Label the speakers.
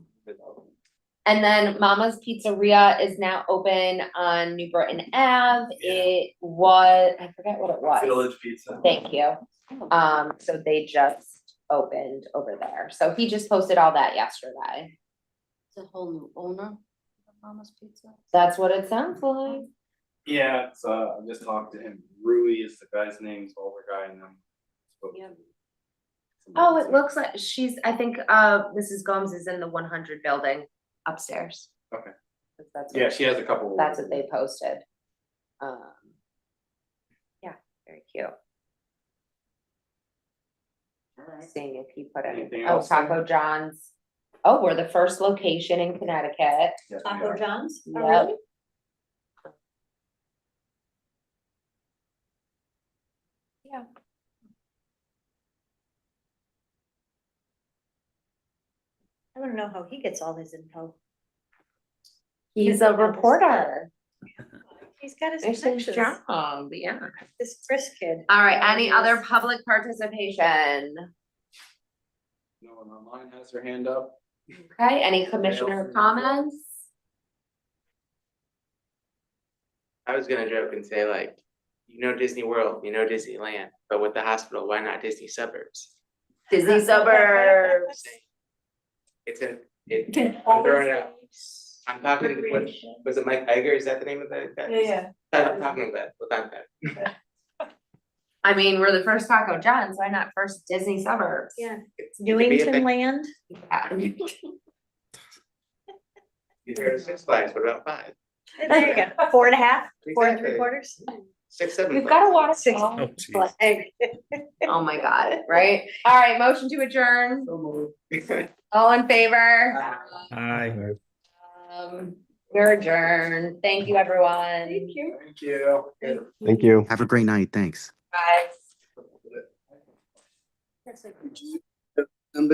Speaker 1: And then Mama's Pizzeria is now open on New Britain Ave.
Speaker 2: Yeah.
Speaker 1: It was, I forget what it was.
Speaker 2: Village Pizza.
Speaker 1: Thank you. Um, so they just opened over there. So he just posted all that yesterday.
Speaker 3: It's a whole new owner of Mama's Pizza.
Speaker 1: That's what it sounds like.
Speaker 2: Yeah, it's, uh, I just talked to him. Rui is the guy's name, it's older guy and them.
Speaker 3: Yeah.
Speaker 1: Oh, it looks like she's, I think, uh, Mrs. Gomes is in the one hundred building upstairs.
Speaker 2: Okay.
Speaker 1: That's
Speaker 2: Yeah,
Speaker 1: what,
Speaker 2: she has a couple.
Speaker 1: that's what they posted. Um. Yeah, very cute. Seeing if he put
Speaker 2: Anything
Speaker 1: in, oh,
Speaker 2: else there?
Speaker 1: Taco John's. Oh, we're the first location in Connecticut.
Speaker 2: Yes, we
Speaker 3: Taco
Speaker 2: are.
Speaker 3: John's? Oh,
Speaker 1: Yep.
Speaker 3: really?
Speaker 1: Yeah.
Speaker 4: I wanna know how he gets all his info.
Speaker 1: He's a reporter.
Speaker 4: He's got his
Speaker 1: It's his
Speaker 4: connections,
Speaker 1: job, yeah.
Speaker 4: this Chris kid.
Speaker 1: All right, any
Speaker 4: Yeah,
Speaker 1: other
Speaker 4: he's-
Speaker 1: public participation?
Speaker 2: No one online has their hand up.
Speaker 1: Okay, any commissioner
Speaker 2: Nelson.
Speaker 1: comments?
Speaker 5: I was gonna joke and say like, you know Disney World, you know Disneyland, but with the hospital, why not Disney suburbs?
Speaker 1: Disney suburbs.
Speaker 5: It's a, it, I'm throwing it out. I'm talking, what, was it Mike Iger? Is that the name of the guy?
Speaker 3: Yeah,
Speaker 5: I'm talking about, what I'm talking
Speaker 1: I mean, we're the first Taco John's, why not first Disney suburbs?
Speaker 4: Yeah.
Speaker 5: It's
Speaker 4: Newington Land,
Speaker 1: Yeah.
Speaker 5: You heard of Six Flags, what about five?
Speaker 4: there you go, four and a half, four and three
Speaker 5: Exactly.
Speaker 4: quarters.
Speaker 5: Six, seven.
Speaker 1: We've got a water.
Speaker 4: Six.
Speaker 1: Oh,
Speaker 6: geez.
Speaker 1: like- Oh my god, right? All right, motion to adjourn,
Speaker 5: water.
Speaker 1: all in favor?
Speaker 6: Hi.
Speaker 1: Um, we're adjourned, thank you, everyone.
Speaker 3: you.
Speaker 2: Thank you.
Speaker 7: Have a great night. Thanks.
Speaker 1: Bye.
Speaker 3: That's like-